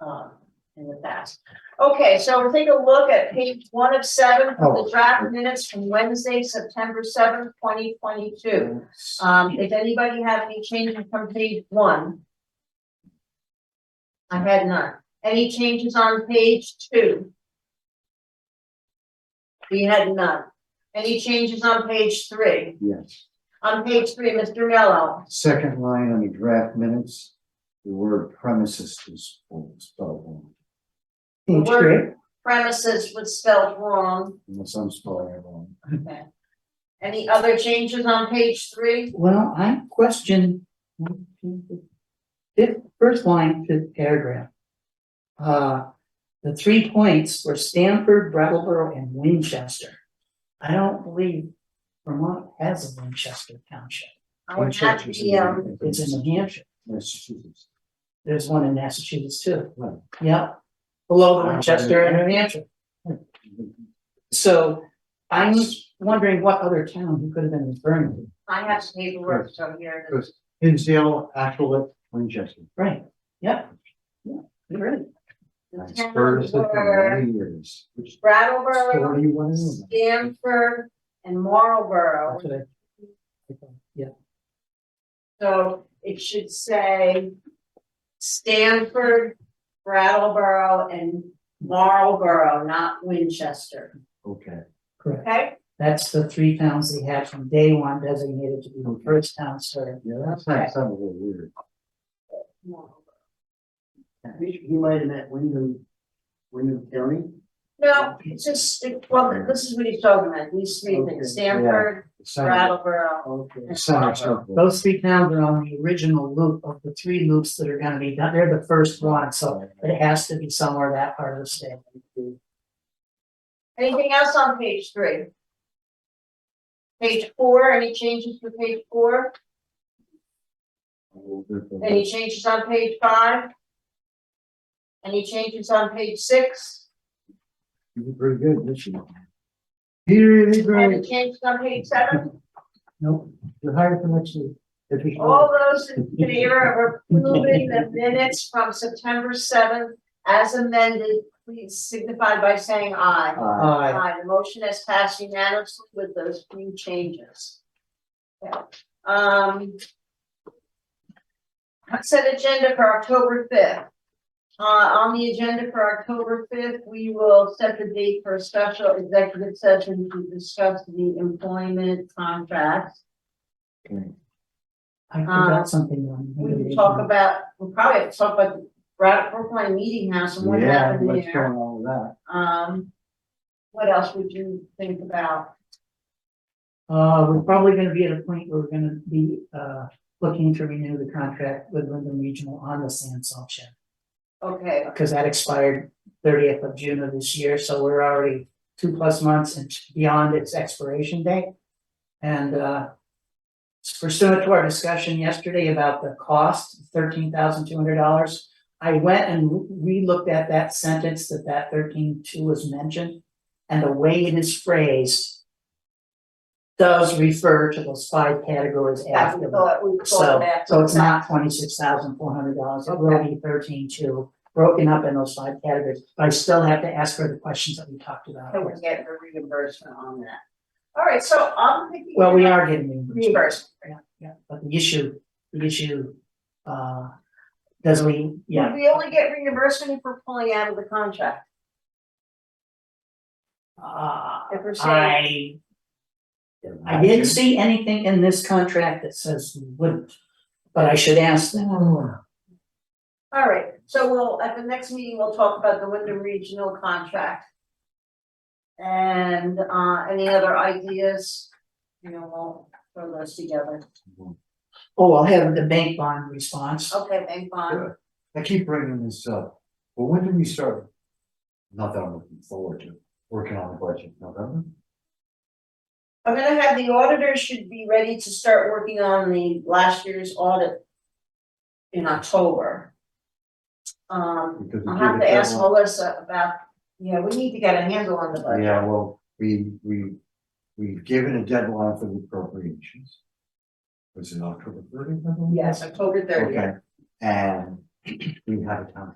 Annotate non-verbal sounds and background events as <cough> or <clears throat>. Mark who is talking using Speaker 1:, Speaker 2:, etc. Speaker 1: um, in the past. Okay, so we'll take a look at page one of seven, for the draft minutes from Wednesday, September seventh, twenty twenty-two. Um, if anybody have any changes from page one? I had none. Any changes on page two? We had none. Any changes on page three?
Speaker 2: Yes,
Speaker 1: On page three, Mr. Mello,
Speaker 2: second line on the draft minutes, the word premises is spelled wrong,
Speaker 3: Page
Speaker 1: Word.
Speaker 3: three,
Speaker 1: premises was spelled wrong.
Speaker 2: unless I'm spelling it wrong.
Speaker 1: Okay. Any other changes on page three?
Speaker 3: well, I question. Fifth, first line, fifth paragraph. Uh, the three points were Stanford, Brattleboro, and Winchester. I don't believe Vermont has a Winchester Township,
Speaker 1: I would have
Speaker 2: Winchester's
Speaker 1: the, um,
Speaker 2: in
Speaker 3: it's in New Hampshire,
Speaker 2: Massachusetts.
Speaker 3: there's one in Massachusetts too,
Speaker 2: Right.
Speaker 3: yeah. Below the Winchester and New Hampshire, so I'm wondering what other town he could have been referring to,
Speaker 1: I have some paperwork, so here it is.
Speaker 2: Because Hinsdale, Ashwellet, Winchester.
Speaker 3: right, yeah. Yeah, you're right.
Speaker 2: That's
Speaker 1: Town
Speaker 2: first of
Speaker 1: were
Speaker 2: many years. Which
Speaker 1: Brattleboro,
Speaker 2: story you want to know?
Speaker 1: Stanford, and Marlboro.
Speaker 3: That's what I- I thought, Yeah,
Speaker 1: So it should say Stanford, Brattleboro, and Marlboro, not Winchester,
Speaker 2: Okay,
Speaker 3: correct.
Speaker 1: okay?
Speaker 3: That's the three towns they had from day one designated to be the first town served.
Speaker 2: yeah, that's not, sounds a little weird.
Speaker 4: He he might have met Wyndham, Wyndham County.
Speaker 1: No, it's just, it- well, this is what he's talking about, these three
Speaker 4: Okay, yeah.
Speaker 1: things, Stanford,
Speaker 2: It sounds-
Speaker 1: Brattleboro,
Speaker 4: Okay.
Speaker 2: it sounds helpful.
Speaker 3: Those three towns are on the original loop of the three loops that are gonna be done. They're the first one, so it has to be somewhere that part of the state.
Speaker 1: Anything else on page three? Page four, any changes for page four? Any changes on page five? Any changes on page six?
Speaker 2: You did pretty good this year. Peter, you did
Speaker 1: Any
Speaker 2: great.
Speaker 1: changes on page seven?
Speaker 2: Nope, you're hired for next year. If you-
Speaker 3: Oh.
Speaker 1: All those in favor of approving the minutes from September seventh as amended, please signify by saying aye.
Speaker 2: Uh,
Speaker 3: Uh,
Speaker 1: Aye, the motion has passed unanimously with those few changes. Okay, Um. Set agenda for October fifth. Uh, on the agenda for October fifth, we will set the date for a special executive session to discuss the employment contract.
Speaker 3: Uh, I forgot something. on the
Speaker 1: Um, We can talk about, we'll probably have to talk about Brad Brookline Meeting House and what
Speaker 2: Yeah,
Speaker 1: happened
Speaker 2: what's
Speaker 1: there.
Speaker 2: going on with that?
Speaker 1: Um, what else would you think about?
Speaker 3: Uh, we're probably gonna be at a point where we're gonna be, uh, looking to renew the contract with Wyndham Regional on the sand salt shed.
Speaker 1: Okay,
Speaker 3: because that expired thirtieth of June of this year, so we're already two plus months and beyond its expiration date. And uh pursuant to our discussion yesterday about the cost, thirteen thousand two hundred dollars, I went and re-looked at that sentence that that thirteen two was mentioned, and the way it is phrased does refer to those five categories
Speaker 1: that
Speaker 3: after
Speaker 1: we
Speaker 3: that.
Speaker 1: thought, we thought
Speaker 3: So,
Speaker 1: that.
Speaker 3: so it's not twenty-six thousand four hundred dollars, it will be thirteen two, broken up in those five categories, but I still have to ask for the questions that we talked about.
Speaker 1: Can we get a reimbursement on that? All right, so I'm thinking.
Speaker 3: Well, we are getting reimbursed,
Speaker 1: Reimbursement.
Speaker 3: yeah, but the issue, the issue, uh, does we,
Speaker 1: Would
Speaker 3: yeah,
Speaker 1: we only get reimbursement if we're pulling out of the contract?
Speaker 3: uh,
Speaker 1: If we're saying,
Speaker 3: I, I didn't see anything in this contract that says we wouldn't. But I should ask them,
Speaker 1: all right, so we'll, at the next meeting, we'll talk about the Wyndham Regional contract. And, uh, any other ideas? You know, we'll throw those together.
Speaker 3: oh, I'll have the bank bond response,
Speaker 1: Okay, thank Bond.
Speaker 2: I keep bringing this up, but when do we start? Not that I'm looking forward to, working on the budget, November?
Speaker 1: I'm gonna have the auditors should be ready to start working on the last year's audit in October. Um,
Speaker 2: Because we
Speaker 1: I'll
Speaker 2: give
Speaker 1: have
Speaker 2: it
Speaker 1: to ask
Speaker 2: deadline.
Speaker 1: Melissa about, yeah, we need to get a handle on the budget.
Speaker 2: Yeah, well, we, we, we've given a deadline for the appropriations. Was it October thirtieth?
Speaker 1: Yes, October thirtieth.
Speaker 2: Okay, and <clears throat> we have a time.